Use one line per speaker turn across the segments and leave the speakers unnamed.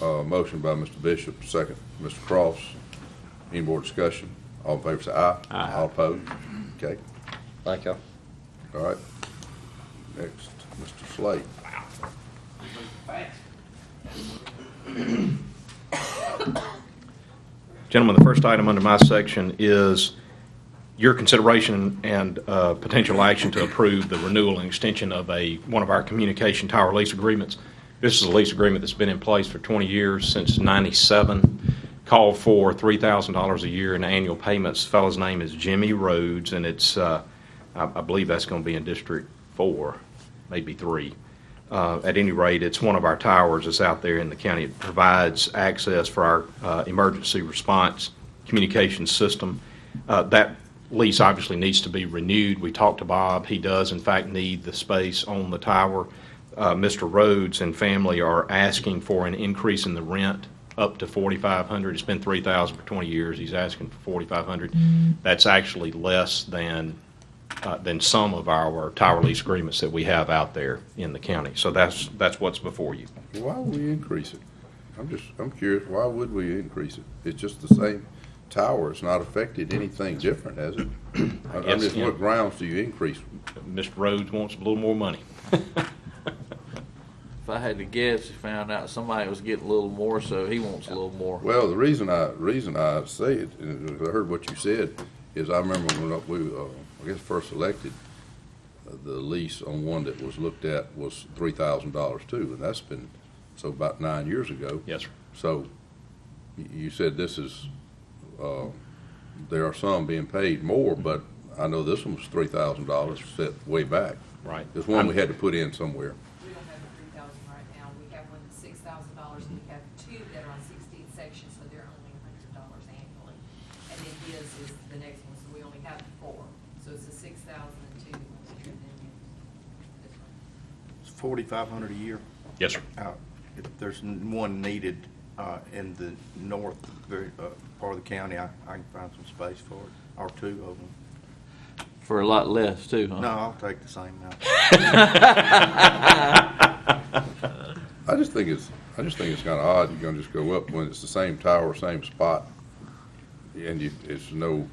Uh, motion by Mr. Bishop, second, Mr. Cross. Any more discussion? All in favor say aye. Aye. All opposed? Okay,
Thank y'all.
all right. Next, Mr. Slade.
Gentlemen, the first item under my section is your consideration and uh, potential action to approve the renewal and extension of a, one of our communication tower lease agreements. This is a lease agreement that's been in place for 20 years, since 97, called for $3,000 a year in annual payments. Fellow's name is Jimmy Rhodes, and it's, uh, I I believe that's going to be in District 4, maybe 3. Uh, At any rate, it's one of our towers that's out there in the county. It provides access for our uh, emergency response communication system. Uh, That lease obviously needs to be renewed. We talked to Bob. He does, in fact, need the space on the tower. Uh, Mr. Rhodes and family are asking for an increase in the rent up to 4,500. It's been 3,000 for 20 years. He's asking for 4,500. That's actually less than uh, than some of our tower lease agreements that we have out there in the county. So that's, that's what's before you.
Why would we increase it? I'm just, I'm curious, why would we increase it? It's just the same tower, it's not affected anything different, has it? I- I'm
guess,
just,
yeah.
what grounds do you increase?
Mr. Rhodes wants a little more money.
If I had to guess, he found out somebody was getting a little more, so he wants a little more.
Well, the reason I, reason I say it, and I heard what you said, is I remember when we, uh, I guess, first elected, uh, the lease on one that was looked at was three thousand dollars too, and that's been, so about nine years ago.
Yes, sir.
So y- you said this is, uh, there are some being paid more, but I know this one was three thousand dollars set way back.
Right.
This one we had to put in somewhere.
We don't have the three thousand right now, we have one that's six thousand dollars, we have two that are on sixteen sections, so they're only a hundred dollars annually. And then his is the next one, so we only have four, so it's a six thousand and two, and then this one.
It's forty-five hundred a year.
Yes, sir.
Uh, if There's n- one needed uh, in the north very, uh, part of the county. I I can find some space for it, or two of them.
For a lot less, too, huh?
No,
Uh-huh.
I'll take the same now.
I just think it's, I just think it's kinda odd, you're gonna just go up when it's the same tower, same spot, and you, it's no,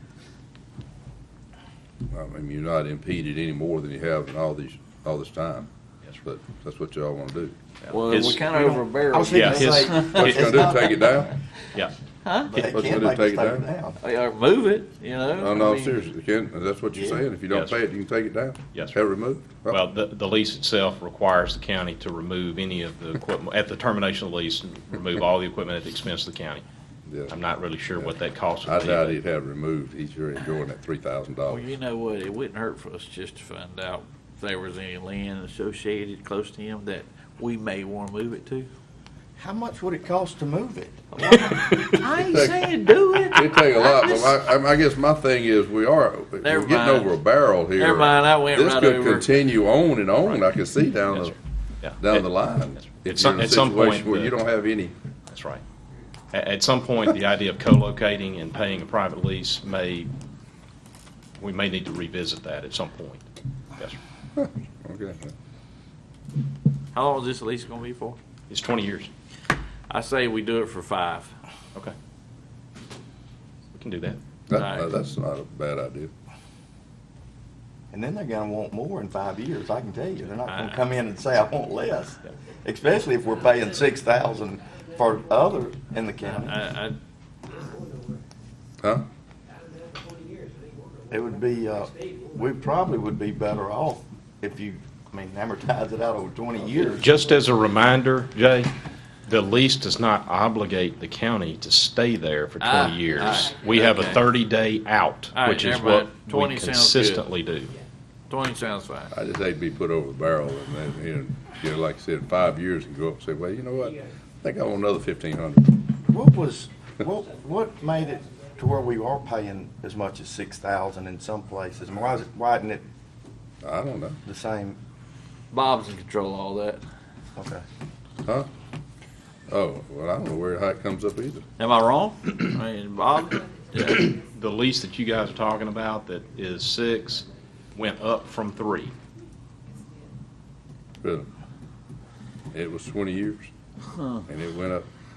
I mean, you're not impeded any more than you have in all these, all this time. Yes, But that's what y'all wanna do.
Well,
His-
we're kind
we
of
don't-
over barrel.
I was thinking
Yeah, his-
say,
What you gonna do, take it down?
Yeah.
but they
What's
can't
gonna
make
take
us
it
take it
down?
down.
Or move it, you know?
No,
I
no,
mean,
seriously, Ken, that's what you're
Yeah.
saying, if you don't
Yes,
pay
sir.
it, you can take it down?
Yes, sir.
Have it removed?
Well, the, the lease itself requires the county to remove any of the equipment, at the termination of the lease, remove all the equipment at the expense of the county.
Yeah.
I'm not really sure what that cost
I
would be.
doubt
but-
he'd have it removed, he's sure enjoying that three thousand
Well,
dollars.
you know what? It wouldn't hurt for us just to find out if there was any land associated close to him that we may want to move it to.
How much would it cost to move it?
I ain't saying do it.
It'd take a lot, but
just-
I, I- I guess my thing is, we are, we're
Never
getting
mind.
over a barrel here.
Never mind, I went right
This could
over.
continue on and on, I can see down
Yes,
the,
sir. Yeah.
down
At-
the line.
Yes, sir.
If
At
you're
some-
in a
at some
situation
point,
Where
the-
you don't have any,
That's right. At, at some point, the idea of co-locating and paying a private lease may, we may need to revisit that at some point. Yes, sir.
okay.
How long is this lease going to be for?
It's 20 years.
I say we do it for five.
Okay. We can do that.
That-
Right.
that's not a bad idea.
And then they're gonna want more in five years, I can tell you. They're not gonna
I-
come in and say, I want less. Especially if we're paying six thousand for other in the county.
I, I,
Huh?
It would be, uh, we probably would be better off if you, I mean, amortize it out over twenty years.
Just as a reminder, Jay, the lease does not obligate the county to stay there for
Ah,
20 years.
alright,
We have a
okay.
30-day out,
Alright,
which is
never
what
mind.
we
20 sounds good.
consistently do.
20 sounds fine.
I just hate to be put over the barrel and then, you know, you know, like I said, five years and go up and say, well, you know what? I think I want another fifteen hundred.
What was, what, what made it to where we are paying as much as six thousand in some places? And why is it, why isn't it
I don't know.
the same?
Bob's in control of all that.
Okay.
Huh? Oh, well, I don't know where, how it comes up either.
Am I wrong? I mean, Bob? Yeah.
The lease that you guys are talking about that is six went up from three.
Really. It was twenty years, and it went up